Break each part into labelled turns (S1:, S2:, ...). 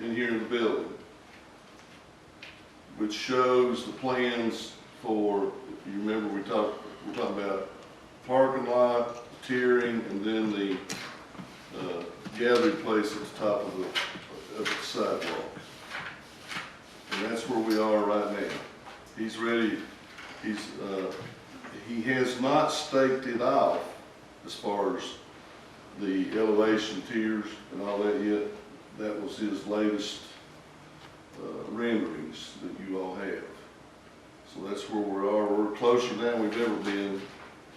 S1: here in the building, which shows the plans for, if you remember, we talked, we're talking about parking lot, tiering, and then the, uh, gathering place at the top of the, of the sidewalk. And that's where we are right now. He's ready, he's, uh, he has not staked it out as far as the elevation tiers and all that yet. That was his latest uh, renderings that you all have. So that's where we are. We're closer than we've ever been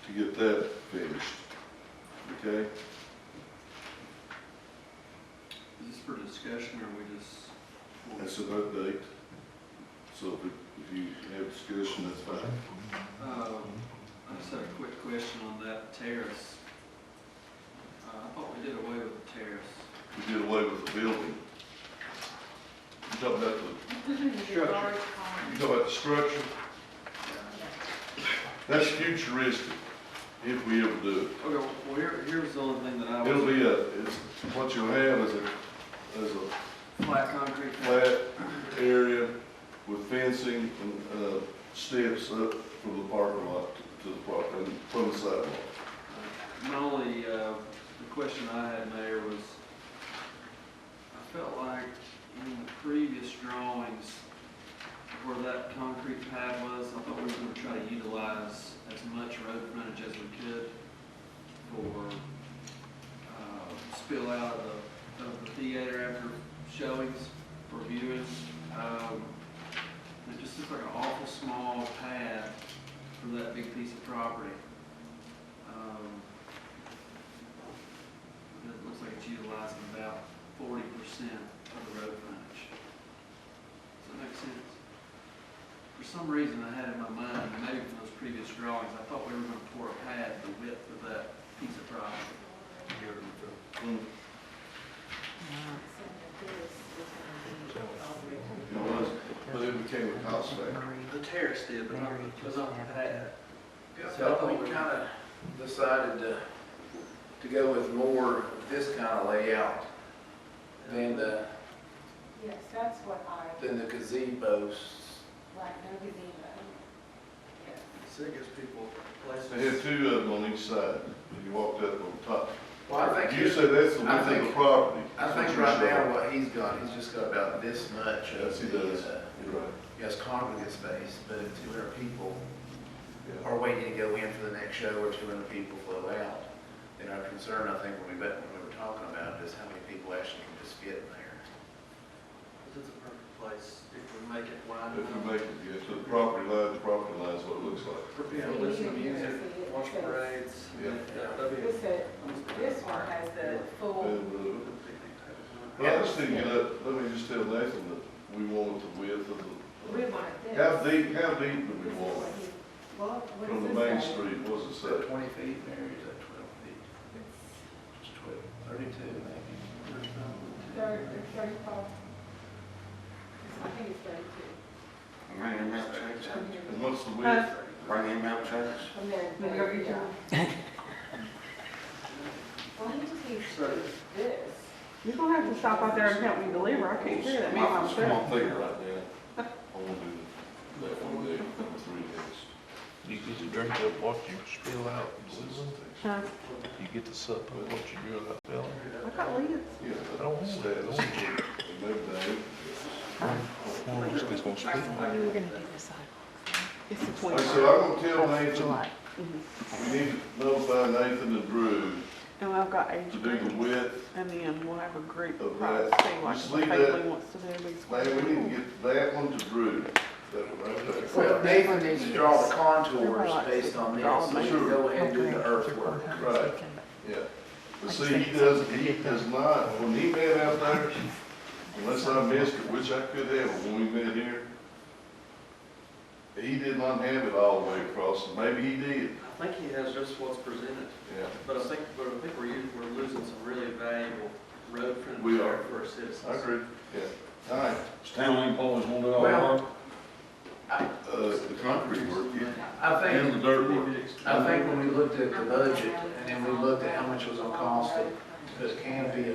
S1: to get that finished. Okay?
S2: Is this for discussion or we just?
S1: That's an update. So if if you have discussion, that's fine.
S2: Um, I just had a quick question on that terrace. Uh, I thought we did away with the terrace.
S1: We did away with the building. You talk about the,
S2: Structure.
S1: you talk about the structure, that's futuristic, if we ever do it.
S2: Okay, well, here, here's the only thing that I
S1: It'll
S2: was,
S1: be a, it's, what you'll have is a, is a
S2: flat concrete.
S1: flat area with fencing and, uh, steps up from the parking lot to the property, from the sidewalk.
S2: My only, uh, the question I had, Mayor, was, I felt like in the previous drawings, where that concrete pad was, I thought we were gonna try to utilize as much road frontage as we could for, uh, spill out of the, of the theater after showings, for viewings. Um, It just looks like an awful small pad for that big piece of property. Um, It looks like it's utilizing about forty percent of the road frontage. Does that make sense? For some reason, I had in my mind, maybe from those previous drawings, I thought we were gonna pour a pad the width of that piece of property.
S1: It was, but it became a cost factor.
S2: The terrace did, but not, but not the pad.
S3: Yeah, So I thought we kind of decided to, to go with more of this kind of layout than
S1: uh,
S3: the,
S4: Yes, that's what I,
S3: than the gazebos.
S4: like, no gazebo. Yes.
S2: So it gives people places.
S1: They had two of them on each side, and you walked up on top.
S3: Well, I think,
S1: You say that's the
S3: I
S1: width of the
S3: think-
S1: property.
S3: I think right now what he's got, he's just got about this much
S1: Yes,
S3: of
S1: he
S3: the,
S1: does.
S3: uh,
S1: You're right.
S3: yes, congregate space, but if two hundred people
S1: Yeah.
S3: are waiting to go in for the next show or two hundred people flow out. And our concern, I think, when we, met- when we were talking about it, is how many people actually can just fit in there.
S2: This is a perfect place if we make it wide
S1: If we
S2: enough.
S1: make it, yes, to the property line, the property line is what it looks like.
S2: For people to listen to music, watch parades.
S1: Yeah.
S2: that- that'd be-
S4: This, uh, this one has the full,
S1: And, uh,
S2: Picnic
S1: but I just didn't get up, let me just tell Nathan that we wanted the width of
S4: we
S1: the,
S4: want it this.
S1: how deep, how deep do
S4: This
S1: we
S4: is
S1: want?
S4: what
S1: it?
S4: he- Well, what
S1: From the
S4: does
S1: main
S4: this say?
S1: street, what does it
S3: Is that
S1: say?
S3: twenty feet in there, or is that twelve feet? Just twelve, thirty-two maybe.
S4: It's Thirty, it's thirty-five. It's- I think it's thirty-two.
S5: Bring him out, Chase.
S4: From here.
S1: And what's the
S6: Uh,
S1: width?
S5: Bring him out, Chase.
S4: From there.
S6: Maybe over here.
S4: Well, he just needs
S2: Sorry.
S4: this.
S6: You're gonna have to stop out there and help me deliver, I can't hear that man myself.
S1: Small thing right there. I want to do that one day, three days.
S7: You get to drink up what you spill out,
S6: Huh?
S7: you get to sup up what you drill out, fella.
S6: I got leads.
S1: Yeah,
S7: I
S1: but
S7: don't want that, I don't want that.
S1: we moved that.
S7: I don't want it's gonna spill.
S6: We're gonna do this side. It's the
S1: Like I
S6: twenty-first
S1: said, I'm gonna tell
S6: of
S1: Nathan,
S6: July. Mhm.
S1: we need to notify Nathan and Drew
S6: And I've got
S1: to
S6: age
S1: do the
S6: groups,
S1: width
S6: and then we'll have a group
S1: Of
S6: price,
S1: that.
S6: see like
S1: Just
S6: what
S1: leave
S6: Haley
S1: that-
S6: wants to do, these
S1: Man, we need to
S6: questions.
S1: get that one to Drew, that one right there.
S3: Well, Nathan needs to draw the contours based on this,
S6: Draw
S3: so we should go ahead and do the earthwork.
S1: Right, yeah. But see, he does, he does not, when he met out there, unless I missed it, which I could have, but when we met here, he did not have it all the way across, and maybe he did,
S2: I think he has just what's presented,
S1: yeah.
S2: but I think, but I think we're, u- we're losing some really valuable road
S1: We are.
S2: frontage there for our
S1: I
S2: citizens.
S1: agree, yeah. All right,
S5: Stanley Paul's gonna do all that.
S3: Well,
S1: uh, the concrete work, yeah,
S3: I
S1: and the
S3: think,
S1: dirt work.
S3: I think when we looked at the budget, and then we looked at how much it was gonna cost to put canopy